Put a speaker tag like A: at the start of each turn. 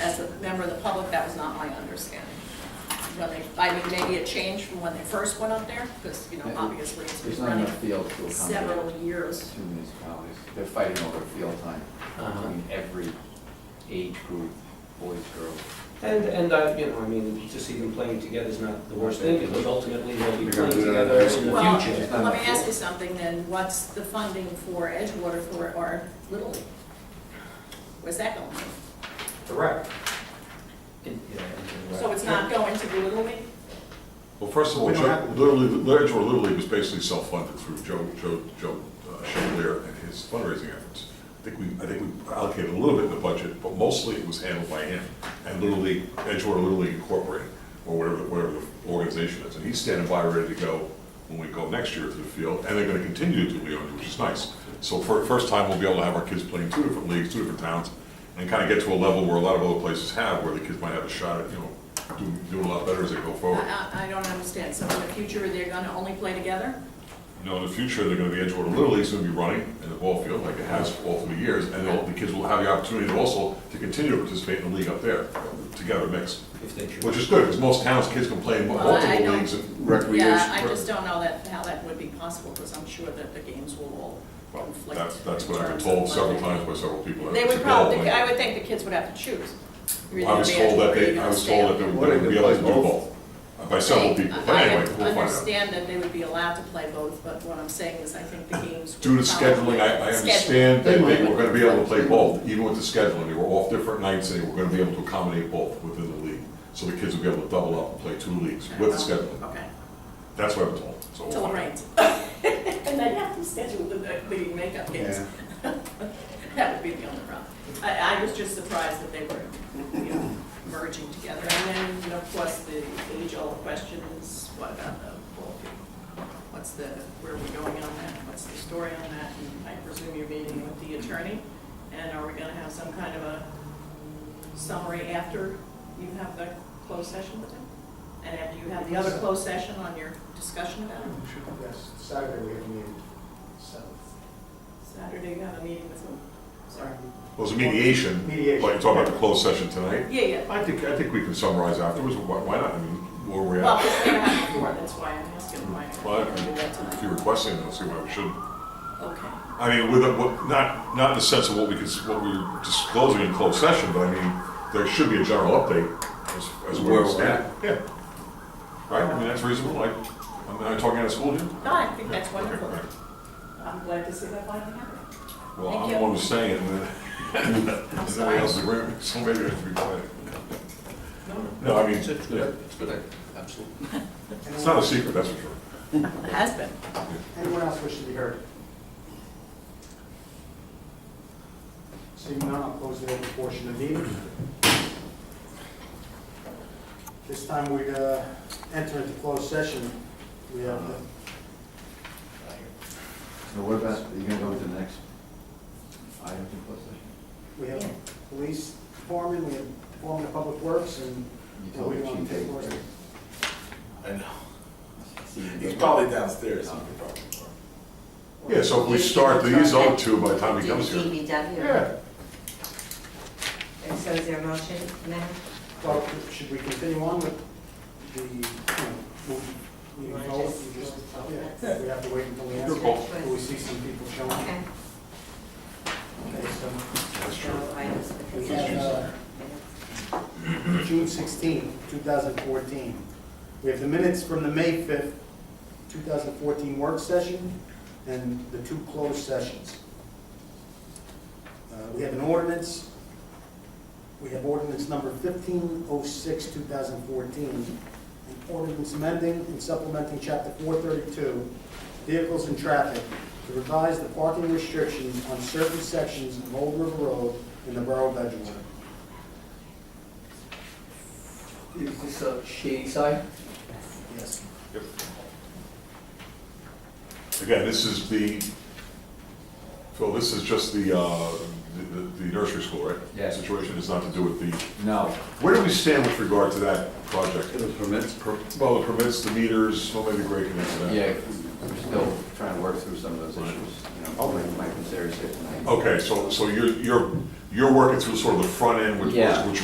A: as a member of the public, that was not my understanding. When they, I mean, maybe it changed from when they first went up there, because, you know, obviously it's
B: There's
A: been
B: not
A: running
B: enough fields to
A: several
B: accommodate
A: years.
B: two municipalities. They're fighting over field time
C: Uh-huh.
B: between every age group, boys, girls.
C: And, and, uh, you know, I mean, just even playing together is not the worst thing, because ultimately they'll be
B: You're
C: playing
B: gonna do that in
C: together
B: high
C: in
B: school.
A: Well,
C: the
B: It's
C: future.
B: not
A: let me
B: enough
A: ask you
B: field.
A: something then, what's the funding for Edgewater for our Little League? Where's that going?
C: Correct.
A: So it's not going to the Little League?
D: Well, first of all,
E: We don't
D: Joe,
E: have-
D: Little League, Edgewater Little League was basically self-funded through Joe, Joe, Joe uh, Chevalier and his fundraising efforts. I think we, I think we allocated a little bit in the budget, but mostly it was handled by him and Little League, Edgewater Little League Incorporated, or whatever, whatever the organization is. And he's standing by, ready to go when we go next year to the field, and they're gonna continue to do Leonia, which is nice. So for, first time, we'll be able to have our kids playing two different leagues, two different towns, and kind of get to a level where a lot of other places have, where the kids might have a shot at, you know, doing, doing a lot better as they go
A: I,
D: forward.
A: I- I don't understand, so in the future, they're gonna only play together?
D: You know, in the future, they're gonna be Edgewater Little League's gonna be running in the ball field like it has all through the years, and they'll- the kids will have the opportunity to also to continue to participate in the league up there, together mixed,
C: If they choose.
D: which is good, because most towns, kids can play in
A: Well, I
D: multiple
A: don't-
D: leagues and recreation.
A: Yeah, I just don't know that, how that would be possible, because I'm sure that the games will all
D: Well,
A: conflict.
D: that's, that's
A: in
D: what I've been
A: terms
D: told
A: of
D: several
A: funding.
D: times by several people.
A: They would
D: It's a goal,
A: probably,
D: and
A: I would think the kids would have to choose. You're either
D: I was
A: gonna
D: told
A: be
D: that
A: Edgewater or
D: they,
A: you're
D: I
A: gonna
D: was
A: stay
D: told
A: up
D: that they
A: there.
D: would be able to do both, uh, by several people, but
A: I-
D: anyway, we'll
A: I
D: find out.
A: understand that they would be allowed to play both, but what I'm saying is I think the games. would
D: Due to
A: probably-
D: scheduling, I, I
A: Schedule.
D: understand that they were gonna be able to play both, even with the scheduling, they were off different nights, and they were gonna be able to accommodate both within the league. So the kids would be able to double up and play two leagues with the scheduling,
A: Okay,
D: that's what I'm told, so. we'll
A: till it
D: find out.
A: rains. And then you have to schedule the, the makeup games. That would be the only problem. I, I was just surprised that they were, you know, merging together. And then, you know, of course, the age-old question is, what about the ball field? What's the, where are we going on that? What's the story on that? And I presume you're meeting with the attorney? And are we gonna have some kind of a summary after you have the closed session with him? And after you have the other closed session on your discussion about it?
E: Yes, Saturday we have a meeting, so.
A: Saturday, you have a meeting with whom? Sorry.
D: Well, it's a mediation, but you're
E: Mediation.
D: talking about the closed session tonight?
A: Yeah, yeah.
D: I think, I think we can summarize afterwards, why, why not, I mean, where we're
A: Well,
D: at.
A: it's never happened before, that's why I'm asking why I
D: Well,
A: can't do that
D: if you're
A: tonight.
D: requesting it, I'll see why we shouldn't.
A: Okay.
D: I mean, with, a- what- not, not in the sense of what we could, what we were disclosing in closed session, but I mean, there should be a general update as, as where we stand. Yeah. Right, I mean, that's reasonable, like, I'm not talking out of school, Jim?
A: No, I think that's wonderful.
D: Okay,
A: I'm glad to see that finally happened.
D: right. Well,
A: Thank
D: I'm
A: you.
D: the one who's saying it, and then,
A: I'm
D: is
A: sorry.
D: anybody else agreeing, so maybe I should be quiet. No, I mean,
C: It's a good-
D: yeah,
C: it's a good, idea. absolutely.
D: it's not a secret, that's for sure.
A: It has been.
E: Anyone else wish to be heard? Seeing none, I'll close the open portion of the meeting. This time we uh, enter into closed session. We have,
B: So what about, are you gonna go into the next item in closed session?
E: we have police foreman, we have foreman of public works, and
B: You told
E: we want
B: me
E: to take more.
B: Tuesday.
F: I know. He's
B: right?
F: probably downstairs. he could probably-
D: Yeah, so if we start these out two by the time he comes here.
G: DPW.
D: Yeah.
G: And so is there a motion, Madam?
E: Well, should we continue on with the, you know, we, we
G: You wanna
E: vote,
G: just-
E: we just,
G: vote,
E: yeah,
G: that's-
E: we have to wait until we
D: Your
E: answer.
D: call.
E: Till we see some people showing.
G: Okay,
E: Okay, so
D: That's true.
G: so items with
E: we
G: consent.
E: have, uh, June 16, 2014. We have the minutes from the May 5th, 2014 work session and the two closed sessions. Uh, We have an ordinance, we have ordinance number 1506, 2014, an ordinance amending and supplementing Chapter 432, Vehicles and Traffic, to revise the parking restrictions on certain sections of Old River Road in the Borough of Edgewater.
H: Is this a shady side?
E: Yes.
D: Again, this is the, Phil, this is just the, uh, the the nursery school, right?
B: Yeah.
D: Situation is not to do with the,
B: No,
D: where do we stand with regard to that project?
B: it was permits, per-
D: Well, the permits, the meters, well, maybe Greg can answer that.
B: yeah, we're still trying to work through some of those issues, you know,
D: Okay.
B: Mike was there, he said tonight.
D: Okay, so, so you're, you're, you're working through sort of the front end, which,
B: Yeah.
D: which